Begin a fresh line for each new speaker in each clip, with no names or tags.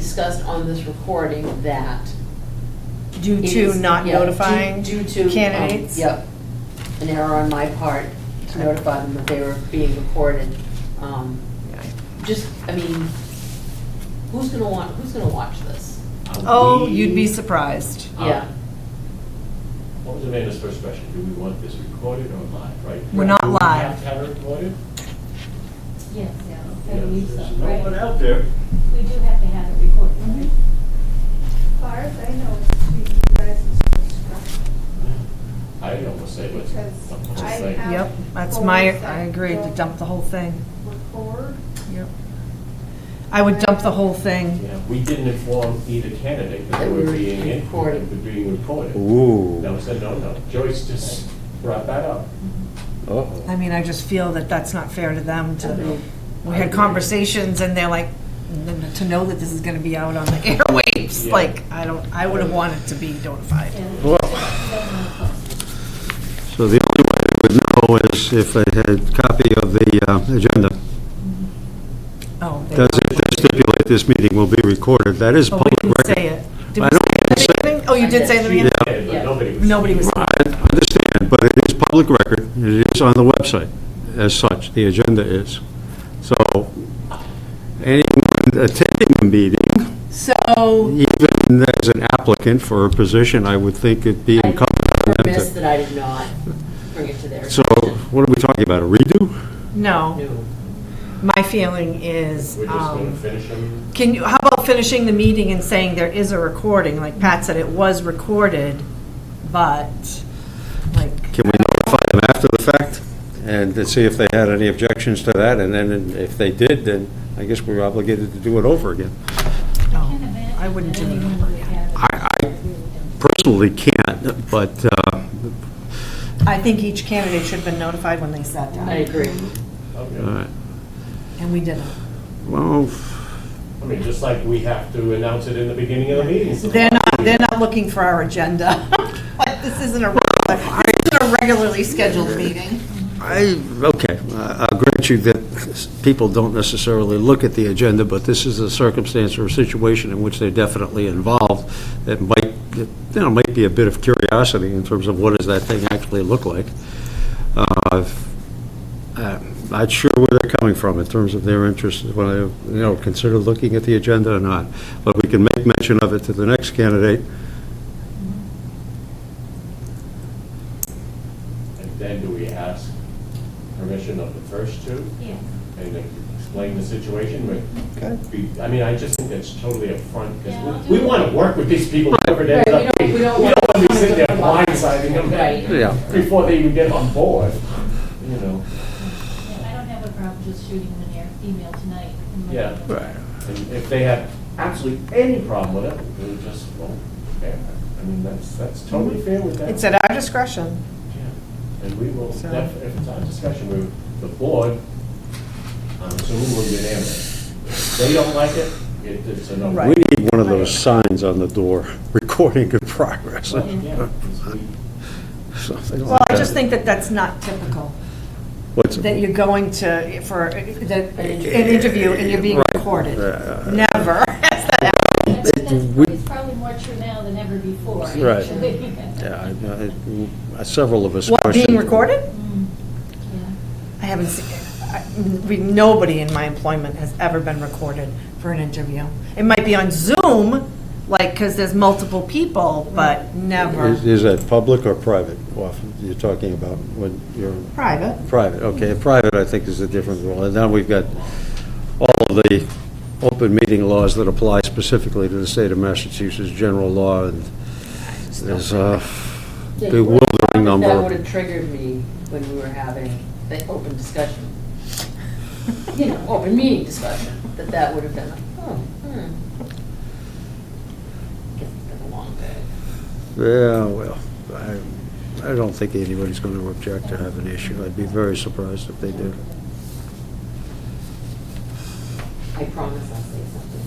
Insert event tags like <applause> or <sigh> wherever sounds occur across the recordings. discussed on this recording that.
Due
it
to
is-
not
yeah, due-
notifying
due to, um,
candidates?
Yep, an error on my part to notify them that they were being recorded. Um, Just, I mean, who's gonna want, who's gonna watch this?
Oh, you'd be surprised.
Um,
Yeah.
What was Amanda's first question? Do we want this recorded or live, right?
We're not
Do we
live.
have to have it recorded?
Yes, yeah, I
Yeah,
believe so,
There's no one Mm-hmm.
right?
out there.
We do have to have it recorded, right?
far as I know, it's between you guys and Swiss
I almost say what's.
Because
I'm just
I
like-
have-
Yep, that's my, I agree, to dump the whole thing.
Record.
Yep. I would dump the whole thing.
Yeah, we didn't inform either candidate that they
That we
were
were
being in,
recorded.
that being recorded. That
Ooh.
was a no-no. Joyce just brought that up.
Uh-oh.
I mean, I just feel that that's not fair to them to, we
I
had
agree.
conversations and they're like, to know that this is gonna be out on the <laughs> airwaves,
Yeah.
like, I don't, I would have wanted to be notified.
Yeah, we
Well-
just have to have it posted.
So the only way I would know is if I had a copy of the uh, agenda.
Oh, they-
Does it does stipulate this meeting will be recorded? That is
Oh, we
public
didn't
record.
say it. Did we say
I
it
don't
in the
say it.
beginning? Oh, you did say it in the beginning?
Yeah.
Yeah, but nobody was.
Nobody was,
I understand, but it is public record. It is on the website as such, the agenda is. So anyone attending the meeting,
so,
even as an applicant for a position, I would think it'd be
I
incumbent on them
Remiss
to...
that I did not bring it to their
So
attention.
what are we talking about, a redo?
no,
No.
my feeling is,
We're just gonna
um,
finish them.
can you, how about finishing the meeting and saying there is a recording? Like Pat said, it was recorded, but, like,
Can we notify them after the fact and to see if they had any objections to that? And then if they did, then I guess we're obligated to do it over again.
no,
Can't imagine
I wouldn't
that
do it
anyone
over
would
again.
have it.
I, I personally can't, but uh,
I think each candidate should have been notified when they sat
I
down,
agree.
Okay.
all right.
and we didn't.
uh, well,
I mean, just like we have to announce it in the beginning of the
<laughs>
meeting.
They're not, they're not looking for our agenda. <laughs> Like, this isn't a, regular- this isn't a regularly scheduled meeting.
I, okay, I- I'll grant you that people don't necessarily look at the agenda, but this is a circumstance or a situation in which they're definitely involved that might, that, you know, might be a bit of curiosity in terms of what does that thing actually look like. Uh, uh, Not sure where they're coming from in terms of their interest, whether, you know, consider looking at the agenda or not. But we can make mention of it to the next candidate.
And then do we ask permission of the first two?
Yes.
and like, explain the situation, but, be- I mean, I just think that's totally upfront,
Yeah,
because
I'll
we
do it.
want to work with these people whoever they
Right,
end
we
up
don't-
being.
we don't want
want to be sitting there
them to come
blindsiding
up. Right.
them
Yeah.
before they even get on board, you know,
Yeah, I don't have a problem just shooting them an air email tonight. and letting
Yeah.
them know.
and if they have absolutely any problem with it, we'll just, well, fair. I mean, that's, that's totally fair with that.
It's at our discretion.
Yeah. And we will,
So-
def- if it's on discussion, we, the board, um, I'm assuming we'll get in If they don't like it, it- it's a no.
Right.
We need one of those signs on the door, <laughs> recording in progress.
Well, yeah, it's- we-
Something like
Well, I
that.
just think that that's not typical,
What's-
that you're going to, for, that, an interview and you're being
Right.
recorded.
Uh,
Never. <laughs>
I think that's-
we-
It's probably more true now than ever before.
Right.
actually. <laughs>
Yeah, I- I- Several of us.
What, being
questioned-
recorded?
Mm, yeah.
I haven't seen, I- we, nobody in my employment has ever been recorded for an interview. It might be on Zoom, like, because there's multiple people, but never
Is is that public or private? Often You're talking about when you're
private.
private, okay. Private, I think, is a different rule. And now we've got all of the open meeting laws that apply specifically to the state of Massachusetts, general law, and there's a
Yeah, you would've thought
bewildering number.
That would have triggered me when we were having the open discussion. You know, open meeting discussion, that that would have been, like, oh, hmm. Guess it's been a long day.
Yeah, well, I, I don't think anybody's going to object or have an issue. I'd be very surprised if they did.
I promise I'll say something.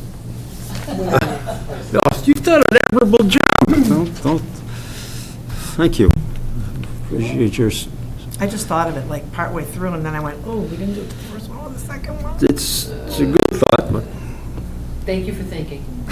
When I'm next person.
Oh, You've done an admirable job. Don't, don't, thank you. You just,
I just thought of it like partway through, and then I went, oh, we didn't do the first one or the second one.
it's, it's a good thought, but
Thank you for thinking.